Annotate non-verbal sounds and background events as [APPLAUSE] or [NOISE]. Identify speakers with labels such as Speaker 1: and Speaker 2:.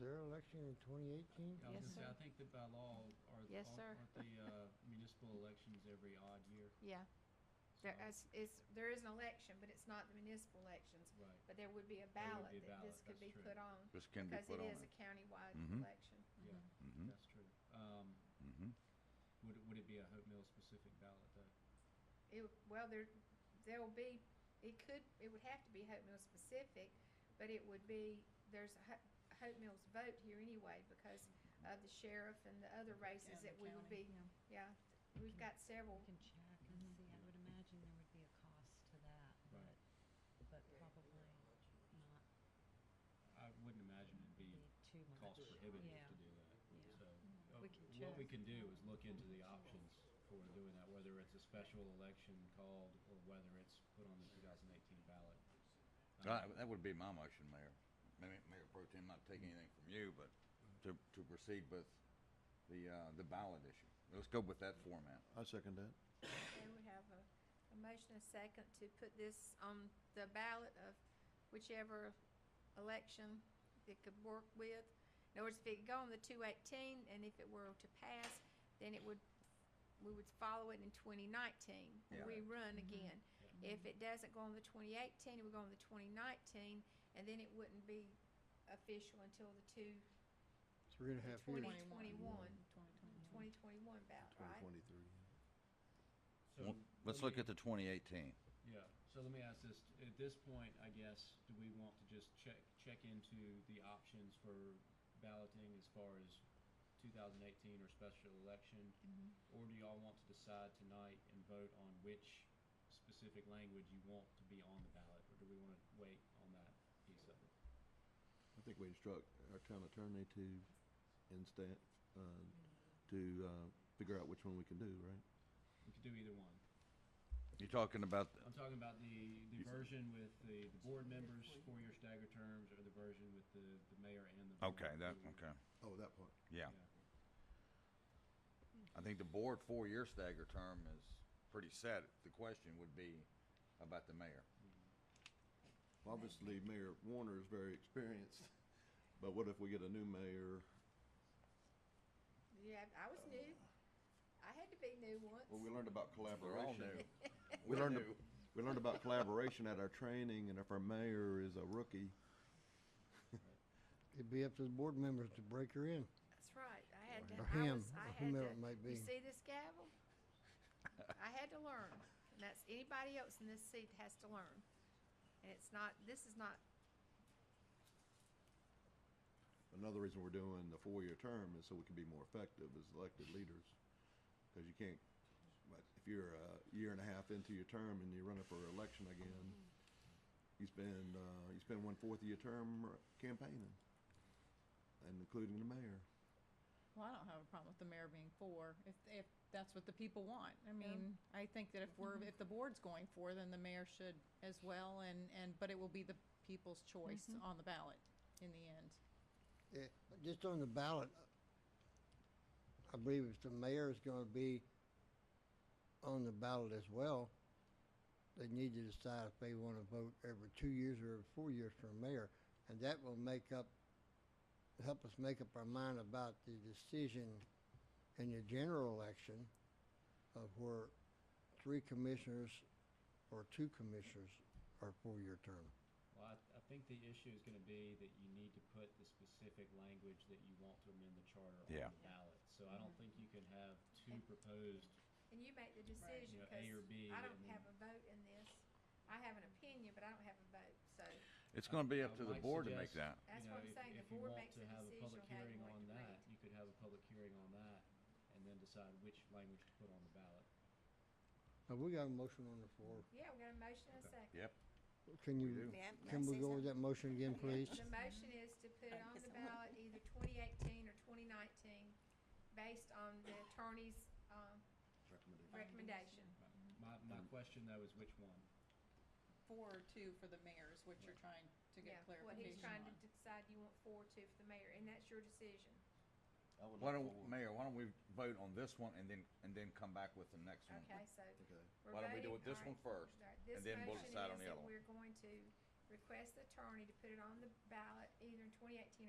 Speaker 1: their election in 2018?
Speaker 2: I was
Speaker 3: Yes,
Speaker 2: gonna say,
Speaker 3: sir.
Speaker 2: I think that by law, are,
Speaker 3: Yes, sir.
Speaker 2: aren't the uh, municipal elections every odd year?
Speaker 3: Yeah,
Speaker 2: So,
Speaker 4: There is, is, there is an election, but it's not the municipal elections,
Speaker 2: Right.
Speaker 4: but there would be a
Speaker 2: There would be a
Speaker 4: ballot that this
Speaker 2: ballot,
Speaker 4: could
Speaker 2: that's
Speaker 4: be
Speaker 2: true.
Speaker 4: put on.
Speaker 5: This can be put on
Speaker 4: Because it is a
Speaker 5: it.
Speaker 4: countywide
Speaker 5: Mhm.
Speaker 4: election.
Speaker 2: Yeah,
Speaker 5: Mhm.
Speaker 2: that's true. Um,
Speaker 5: Mhm.
Speaker 2: would, it- would it be a Hope Mills specific ballot though?
Speaker 4: It, well, there, there'll be, it could, it would have to be Hope Mills specific, but it would be, there's a Ho- Hope Mills vote here anyway because of the sheriff and the other races that we will
Speaker 6: county,
Speaker 4: be,
Speaker 6: yeah.
Speaker 4: yeah, we've got several.
Speaker 6: We can check and see, I would imagine there would be a cost to that,
Speaker 2: Right.
Speaker 6: but, but probably not
Speaker 2: I wouldn't imagine it'd
Speaker 6: be
Speaker 2: be
Speaker 6: too much.
Speaker 2: cost prohibitive
Speaker 6: Yeah.
Speaker 2: to do that.
Speaker 6: Yeah.
Speaker 2: So, uh,
Speaker 6: We can
Speaker 2: what we
Speaker 6: check.
Speaker 2: can do is look into the options for doing that, whether it's a special election called or whether it's put on the two thousand eighteen ballot.
Speaker 7: Uh-huh.
Speaker 2: Um,
Speaker 5: Uh, That would be my motion, Mayor. Mayor Mayor Pro Tem, not taking
Speaker 7: Mm-hmm.
Speaker 5: anything from you, but to, to proceed with the, uh, the ballot issue. Let's go with that format.
Speaker 7: I second that.
Speaker 4: Okay, we have a, a motion and a second to put this on the ballot of whichever election it could work with. In other words, if it could go on the two eighteen, and if it were to pass, then it would, we would follow it in twenty nineteen,
Speaker 5: Yeah.
Speaker 4: rerun again.
Speaker 2: Yeah.
Speaker 4: If it doesn't go on the twenty eighteen, it would go on the twenty nineteen, and then it wouldn't be official until the two,
Speaker 1: Three and a half years.
Speaker 4: 2021.
Speaker 3: twenty twenty-one.
Speaker 4: twenty twenty-one ballot, right?
Speaker 7: 2023.
Speaker 2: So,
Speaker 5: Let's
Speaker 2: let
Speaker 5: look
Speaker 2: me-
Speaker 5: at the 2018.
Speaker 2: Yeah, so let me ask this, at this point, I guess, do we want to just check, check into the options for balloting as far as two thousand eighteen or special election? Or do y'all want to decide tonight and vote on which specific language you want to be on the ballot, or do we wanna wait on that piece of it?
Speaker 7: I think we instruct our town attorney to, and staff, uh, to, uh, figure out which one we can do, right?
Speaker 2: We could do either one.
Speaker 5: You're talking about,
Speaker 2: I'm talking about the, the version with the, the board members, four-year stagger terms, or the version with the, the mayor and the. board.
Speaker 5: okay, that, okay,
Speaker 7: Oh, that part.
Speaker 5: yeah. I think the board four-year stagger term is pretty set. The question would be about the
Speaker 7: [LAUGHS]
Speaker 5: mayor.
Speaker 7: Obviously, Mayor Warner is very experienced, but what if we get a new mayor?
Speaker 4: Yeah, I was new. I had to be new once.
Speaker 7: Well, we learned about
Speaker 5: They're all
Speaker 7: collaboration.
Speaker 5: new.
Speaker 7: We learned,
Speaker 5: new.
Speaker 7: we learned about collaboration at our training, and if our mayor is a rookie,
Speaker 1: It'd be up to the board members to break her in.
Speaker 4: That's right. I had to.
Speaker 1: Or
Speaker 4: I
Speaker 1: him,
Speaker 4: was, I
Speaker 1: or
Speaker 4: had
Speaker 1: whomever
Speaker 4: to.
Speaker 1: it might be.
Speaker 4: You see this gavel? I had to learn, and that's anybody else in this seat has to learn. And it's not. This is not.
Speaker 7: another reason we're doing the four-year term is so we can be more effective as elected leaders. Because you can't, but if you're a year and a half into your term and you're running for election again, you spend, uh, you spend one-fourth of your term campaigning, and including the mayor.
Speaker 8: Well, I don't have a problem with the mayor being four, if, if that's what the people want. I mean, I think that if we're,
Speaker 4: Mm-hmm.
Speaker 8: if the board's going for, then the mayor should as well, and, and, but it will be the people's choice
Speaker 4: Mm-hmm.
Speaker 8: on the ballot in the end.
Speaker 1: Eh, Just on the ballot, I believe if the mayor is going to be on the ballot as well, they need to decide if they want to vote every two years or every four years for a mayor. And that will make up, help us make up our mind about the decision in the general election of where three commissioners or two commissioners are four-year term.
Speaker 2: Well, I, I think the issue is gonna be that you need to put the specific language that you want to amend the charter
Speaker 5: Yeah.
Speaker 2: on the ballot. So I
Speaker 4: Mm-hmm.
Speaker 2: don't think you can have two proposed,
Speaker 4: And you make the decision
Speaker 2: You know,
Speaker 4: because
Speaker 2: A or B,
Speaker 4: I don't
Speaker 2: and-
Speaker 4: have a vote in this. I have an opinion, but I don't have a vote. So
Speaker 5: It's gonna be up
Speaker 2: I
Speaker 5: to the
Speaker 2: might
Speaker 5: board to make
Speaker 2: suggest-
Speaker 5: that.
Speaker 4: That's
Speaker 2: you know,
Speaker 4: what I'm
Speaker 2: if-
Speaker 4: saying. The
Speaker 2: If you
Speaker 4: board
Speaker 2: want
Speaker 4: makes
Speaker 2: to
Speaker 4: the
Speaker 2: have a public
Speaker 4: decision on how you
Speaker 2: hearing on
Speaker 4: want to
Speaker 2: that,
Speaker 4: read.
Speaker 2: you could have a public hearing on that and then decide which language to put on the ballot.
Speaker 1: Have we got a motion on the floor?
Speaker 4: yeah, we got a motion and a second.
Speaker 5: Yep.
Speaker 1: Can you,
Speaker 9: May I- may I
Speaker 1: can
Speaker 9: say
Speaker 1: we go over
Speaker 9: something?
Speaker 1: that motion again, please?
Speaker 4: The motion is to put it on the ballot either twenty eighteen or twenty nineteen, based on the attorney's, um, recommendation.
Speaker 2: My, my question though is which one?
Speaker 8: Four or two for the mayor is what you're trying to
Speaker 4: Yeah,
Speaker 8: get
Speaker 4: what he's
Speaker 8: clarification
Speaker 4: trying
Speaker 8: on.
Speaker 4: to decide, you want four or two for the mayor, and that's your decision.
Speaker 7: I would
Speaker 5: Why
Speaker 7: like
Speaker 5: don't,
Speaker 7: four.
Speaker 5: Mayor, why don't we vote on this one and then, and then come back with the next one?
Speaker 4: Okay, so.
Speaker 7: Okay.
Speaker 4: we're
Speaker 5: Why don't we do
Speaker 4: voting-
Speaker 5: it this
Speaker 4: all right.
Speaker 5: one first,
Speaker 4: All right,
Speaker 5: and
Speaker 4: this
Speaker 5: then we'll
Speaker 4: motion
Speaker 5: decide on
Speaker 4: is
Speaker 5: the
Speaker 4: that
Speaker 5: other one.
Speaker 4: We're going to request the attorney to put it on the ballot either in twenty eighteen or